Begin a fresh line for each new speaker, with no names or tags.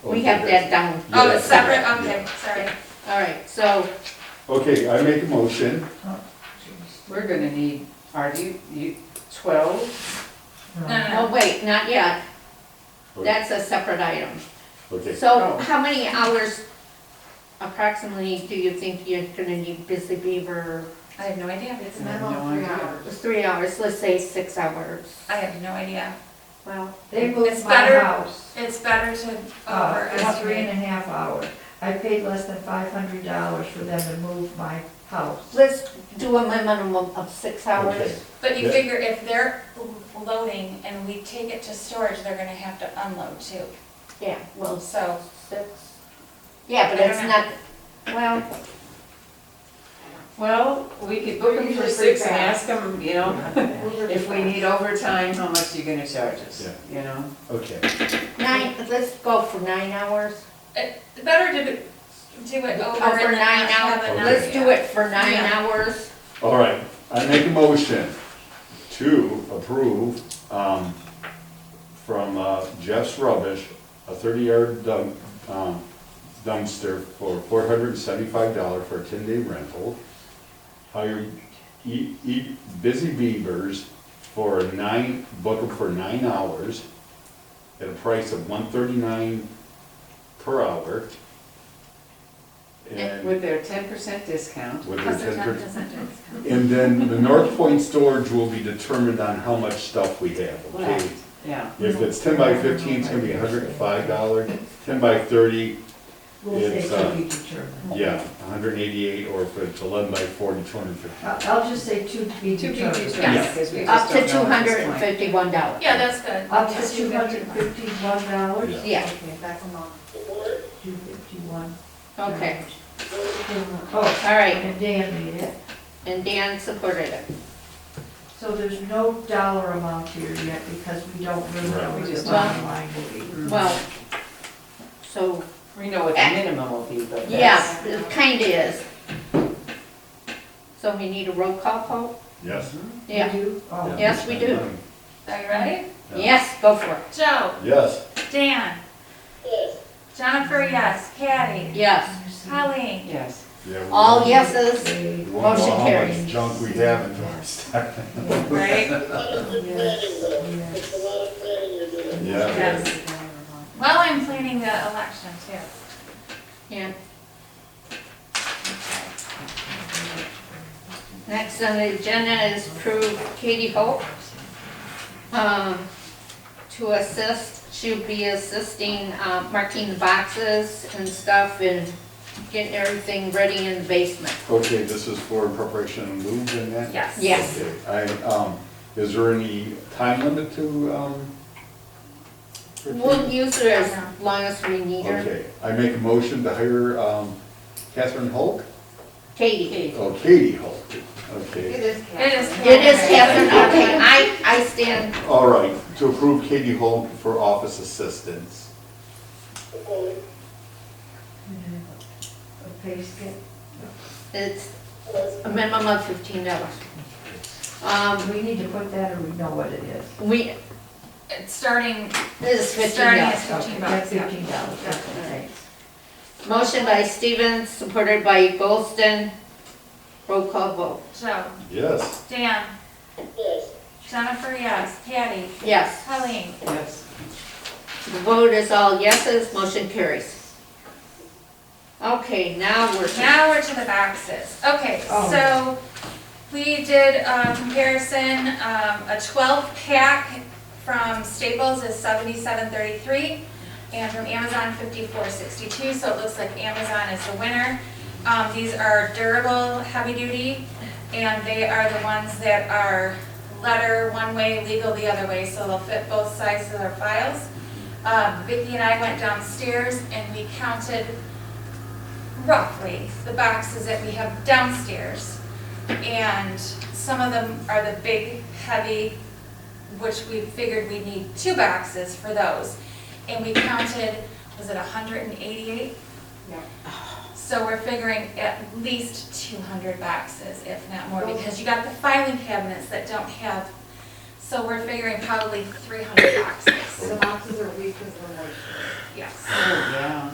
We have that down.
Oh, it's separate, okay, sorry.
All right, so
Okay, I make a motion.
We're gonna need, are you, you, twelve?
No,
Oh,
no,
wait, not yet. That's a separate item.
Okay,
So how many hours approximately do you think you're gonna need Busy Beaver?
I have no idea, it's
I have
not,
no idea.
It's Three hours, let's say six hours.
I have no idea.
Well,
They
It's
moved my
better-
house,
It's better to
uh, it's three and a
overestimate.
half hours. I paid less than five hundred dollars for them to move my house.
let's do a minimum of six
Okay.
hours.
But you
Yeah.
figure if they're loading and we take it to storage, they're gonna have to unload too.
Yeah, well,
So,
six. Yeah, but
I
it's
don't
not, well,
Well, we could book them for six and ask them, you know, if we need overtime, how much you gonna charge us, you know?
okay.
nine, let's go for nine hours.
it's better to do do it over
Over
and
nine
Oh, not have
hours.
another.
Let's do it for nine
Yeah.
hours.
All right, I make a motion to approve, um, from uh, Jeff's Rubbish, a thirty-yard dump, um, dumpster for four hundred and seventy-five dollar for a ten-day rental. Hire E, E, Busy Beavers for nine, book 'em for nine hours at a price of one thirty-nine per hour. And
With their ten percent discount.
with their
Plus the
ten
ten
percent.
percent discount.
And then the North Point storage will be determined on how much stuff we have, okay?
Right, yeah.
If it's ten by fifteen, it's gonna be hundred and five dollars, ten by thirty,
Rules they
It's,
can
uh,
be determined.
yeah, hundred and eighty-eight, or if it's eleven by forty, two hundred and fifty.
I- I'll just say two to be
Two PG,
determined.
Yeah.
yes, because we
Up
just
to
don't
two
know at
hundred
this
and
point.
fifty-one dollars.
Yeah, that's good.
Up
Yeah,
to two hundred fifty-one dollars?
Yeah.
Yeah.
Okay, back them up. Two fifty-one.
Okay,
Oh,
all right,
and Dan made it.
and Dan supported it.
So there's no dollar amount here yet because we don't really
Right.
know
We
what
just
the
don't.
bottom line will be.
Well, so,
We know what the minimum will be, but that's.
Eh. yeah, it kinda is. So we need a roll call vote?
Yes?
Yeah,
We do? Oh.
Yes, we do.
Are you ready?
yes, go for it,
Joe,
Yes,
Dan. Jennifer, yes. Patty.
yes.
Colleen.
Yes,
yeah. we
All
won't-
yeses,
Okay.
We won't know
Motion
how much
carries.
junk we have in our stack.
Right?
Yes,
Yeah.
Yes. Well, I'm planning the election too.
yeah. Next on the agenda is approve Katie Hope, um, to assist, she'll be assisting, uh, marking the boxes and stuff and getting everything ready in the basement.
Okay, this is for preparation and move and that?
Yes.
Yes.
Okay, I, um, is there any time limit to, um? for-
We'll use her as long as we need her.
Okay, I make a motion to hire um, Catherine Hulk?
Katie.
Oh, Katie Hulk, okay.
is
It is.
It is Catherine, okay, I, I stand,
All right, to approve Katie Hulk for office assistance.
A pay skip.
it's a minimum of fifteen dollars. Um,
We need to put that or we know what it is.
we,
It's Starting,
this is fifteen
starting
dollars.
is
Okay,
fifteen bucks.
that's
yeah.
Fifteen dollars, okay, thanks.
Motion by Stevens, supported by Goldston. Roll call vote,
Joe,
Yes,
Dan. Jennifer, yes. Patty.
yes.
Colleen.
yes.
The vote is all yeses, motion carries. Okay, now we're.
Now we're to the boxes. Okay,
Oh.
so we did a comparison, um, a twelve pack from Staples is seventy-seven thirty-three and from Amazon fifty-four sixty-two, so it looks like Amazon is the winner. Um, these are durable, heavy-duty, and they are the ones that are letter one way, legal the other way, so they'll fit both sides of their files. Um, Vicki and I went downstairs and we counted roughly the boxes that we have downstairs. And some of them are the big, heavy, which we figured we need two boxes for those. And we counted, was it hundred and eighty-eight? So we're figuring at least two hundred boxes, if not more, because you got the filing cabinets that don't have So we're figuring probably three hundred boxes,
The boxes are weak because of the moisture.
yes.
Oh, yeah.